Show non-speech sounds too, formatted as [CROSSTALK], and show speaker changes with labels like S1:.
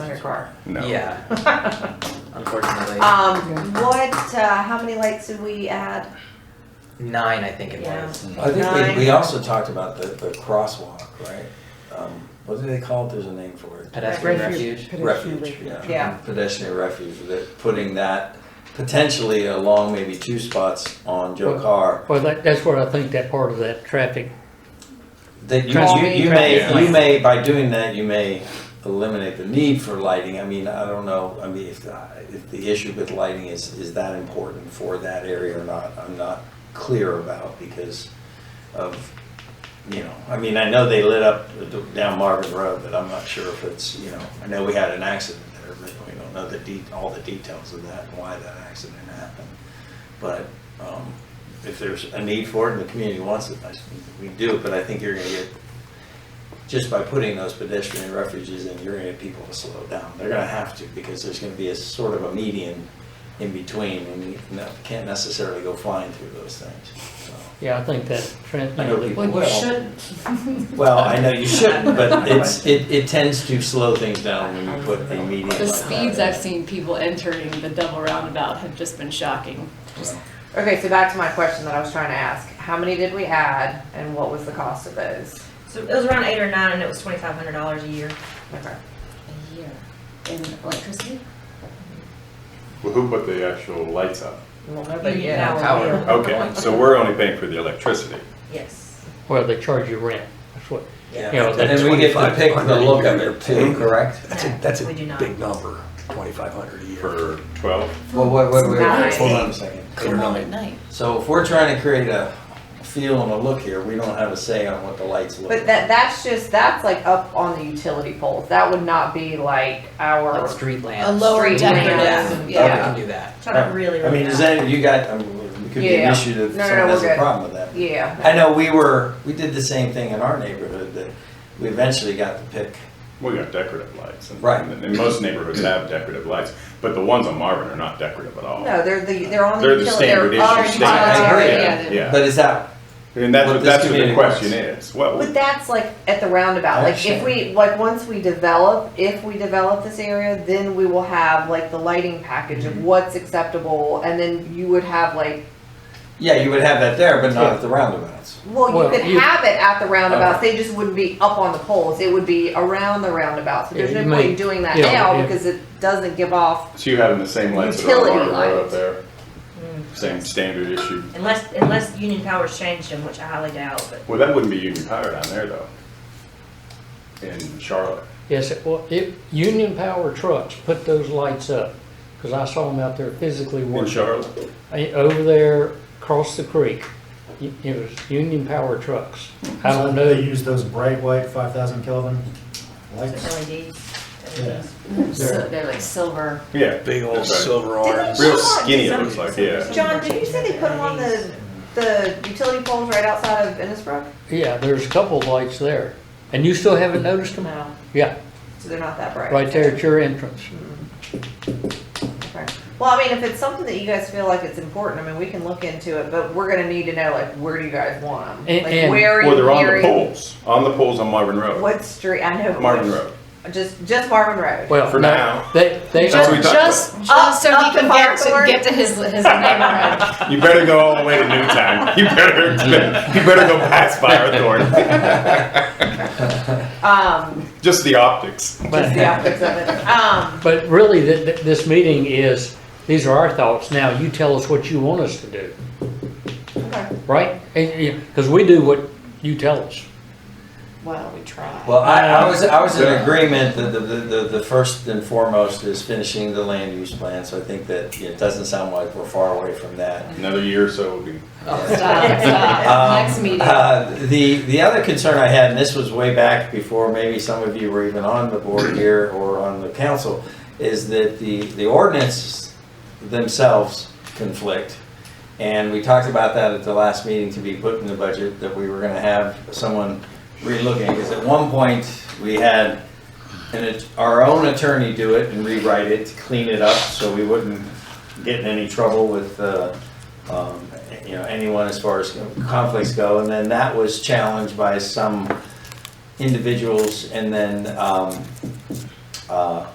S1: car.
S2: No.
S3: Yeah, unfortunately.
S1: [LAUGHS]
S4: Uh,
S1: Um,
S5: Yeah.
S1: what, uh, how many lights did we add?
S3: Nine, I think it
S1: Yeah.
S3: was.
S6: I think
S1: Nine.
S6: we, we also talked about the, the crosswalk, right? Um, What do they call it? There's a name for it.
S3: Pedestrian
S5: Refuge.
S3: refuge.
S5: Pedestrian
S6: Refuge,
S5: refuge.
S1: Yeah.
S6: yeah. Pedestrian refuge, they're putting that potentially along maybe two spots on Joe Carr.
S7: Well, that, that's where I think that part of that traffic,
S6: That you,
S7: Traffic-
S6: you, you may,
S7: traffic
S6: you may, by doing that, you may eliminate the need for lighting. I mean, I don't know, I mean, if, the- if the issue with lighting is, is that important for that area or not, I'm not clear about because of, you know, I mean, I know they lit up the- down Marvin Road, but I'm not sure if it's, you know, I know we had an accident there, but we don't know the de, all the details of that and why that accident happened. But, um, if there's a need for it and the community wants it, I, think we do, but I think you're gonna get, just by putting those pedestrian refuges in, you're gonna get people to slow down. They're gonna have to, because there's gonna be a sort of a median in between, and you no- can't necessarily go flying through those things, so.
S7: yeah, I think that trans.
S6: I know people
S5: Well, you
S6: will.
S5: shouldn't.
S6: Well, I know you
S4: [LAUGHS]
S6: shouldn't, but it's, it, it tends to slow things down when you put a median like
S4: The
S6: that
S4: speeds
S6: in.
S4: I've seen people entering the double roundabout have just been shocking. Just
S1: Okay, so back to my question that I was trying to ask. How many did we add and what was the cost of those?
S8: So it was around eight or nine, and it was twenty-five hundred dollars a year.
S1: Okay.
S4: a year in electricity.
S9: Well, who put the actual lights up?
S1: Well, nobody
S8: Yeah,
S1: did.
S8: that
S3: Power.
S8: Yeah.
S9: Okay, so we're only paying for the electricity.
S8: Yes.
S7: Where they charge you rent, that's what,
S6: Yeah.
S7: you know, that
S6: And we get to pick the look of it too, correct?
S8: That's a,
S10: that's a
S8: We do not.
S10: Big number, twenty-five hundred a year.
S9: For 12?
S6: Well, wait, wait, wait, wait,
S1: Nice.
S6: hold on a second.
S10: Eight or
S4: Come on
S10: nine.
S4: at night.
S6: So if we're trying to create a feel and a look here, we don't have a say on what the lights look.
S1: But that, that's just, that's like up on the utility poles. That would not be like our,
S3: Like street lamps.
S4: A lower
S1: Street
S4: decorative,
S1: lamps.
S3: We
S4: yeah.
S3: can do that.
S8: Try to really, really.
S6: I mean, is
S8: not.
S6: that, you got, I mean, it could be
S1: Yeah.
S6: an issue that
S1: No, no,
S6: someone
S1: no,
S6: has
S1: we're
S6: a
S1: good.
S6: problem with that.
S1: yeah.
S6: I know we were, we did the same thing in our neighborhood, that we eventually got to pick
S9: We got decorative lights. and-
S6: Right.
S9: And and most neighborhoods have decorative lights, but the ones on Marvin are not decorative at all.
S1: No, they're the, they're on the
S9: They're the
S1: utility, they're
S9: standard issue.
S1: on
S9: standard-
S6: utilitarian,
S9: yeah,
S4: they're-
S9: Yeah,
S6: But is that,
S9: and that's
S6: What
S9: what,
S6: this
S9: that's what the
S6: community
S9: question is.
S1: But
S9: What,
S1: that's like at the roundabout, like if we, like, once we develop, if we develop this area, then we will have like the lighting package
S7: Mm-hmm.
S1: of what's acceptable, and then you would have like,
S6: yeah, you would have that there, but not at the roundabouts.
S1: well, you
S7: Well,
S1: could
S7: you- Uh-huh.
S1: have it at the roundabouts, they just wouldn't be up on the poles, it would be around the roundabouts, but there's no
S7: Yeah, you
S1: point in
S7: might-
S1: doing that
S7: yeah,
S1: now,
S7: yeah.
S1: because it doesn't give off,
S9: so you having the same lights that are on
S1: Utility
S9: Marvin Road up
S1: lights.
S9: there? Same standard issue.
S8: Unless, unless Union Power's changed them, which I highly doubt, but
S9: Well, that wouldn't be Union Power down there though. In Charlotte.
S7: yes, it- well, it, Union Power trucks put those lights up, because I saw them out there physically
S9: In
S7: working.
S9: Charlotte?
S7: Eh, Over there, across the creek, y- it was Union Power trucks. I don't know,
S11: They use those bright white five thousand Kelvin
S8: it's
S11: lights.
S8: LEDs.
S11: Yeah.
S4: So They're like silver.
S9: Yeah.
S10: Big old
S9: that's right.
S10: silver
S1: Didn't
S10: arms.
S1: we-
S9: Real skinny it looks like, yeah.
S1: John, did you say they put them on the, the utility poles right outside of Innisbrook?
S7: yeah, there's a couple of lights there, and you still haven't noticed them?
S1: No,
S7: Yeah,
S1: so they're not that bright.
S7: right there at your entrance.
S1: Okay. Well, I mean, if it's something that you guys feel like it's important, I mean, we can look into it, but we're gonna need to know, like, where do you guys want them?
S7: And-
S1: Like,
S7: and-
S1: where are
S9: Well, they're
S1: you
S9: on the
S1: hearing?
S9: poles, on the poles on Marvin Road,
S1: What street, I know.
S9: Marvin Road.
S1: Just, just Marvin Road.
S7: Well,
S9: For
S7: no,
S9: now.
S7: They, they.
S9: That's what we talked about.
S4: Just, just so
S1: Up-
S4: he
S1: up
S4: can
S1: the
S4: get
S1: fire
S4: to, get to his, his neighborhood.
S9: You better go all the way to Newtown. You better, you better go past Firethorn.
S1: Um,
S9: Just the optics.
S1: just the optics of it. Um,
S7: But really, th- th- this meeting is, these are our thoughts. Now you tell us what you want us to do,
S1: okay,
S7: right? Because we do what you tell us.
S4: [LAUGHS] Well, we try.
S6: Well, I, I was, I was in agreement that the, the, the, the first and foremost is finishing the land use plan, so I think that it doesn't sound like we're far away from that.
S9: Another year or so will be.
S1: Oh,
S4: Stop,
S6: [LAUGHS]
S4: stop.
S6: Um,
S4: Next meeting.
S6: Uh, the, the other concern I had, and this was way back before maybe some of you were even on the board here or on the council, is that the, the ordinance themselves conflict. And we talked about that at the last meeting to be put in the budget, that we were gonna have someone relooking, because at one point, we had an at- our own attorney do it and rewrite it, to clean it up, so we wouldn't get in any trouble with, uh, um, you know, anyone as far as conflicts go, and then that was challenged by some individuals, and then, um, uh,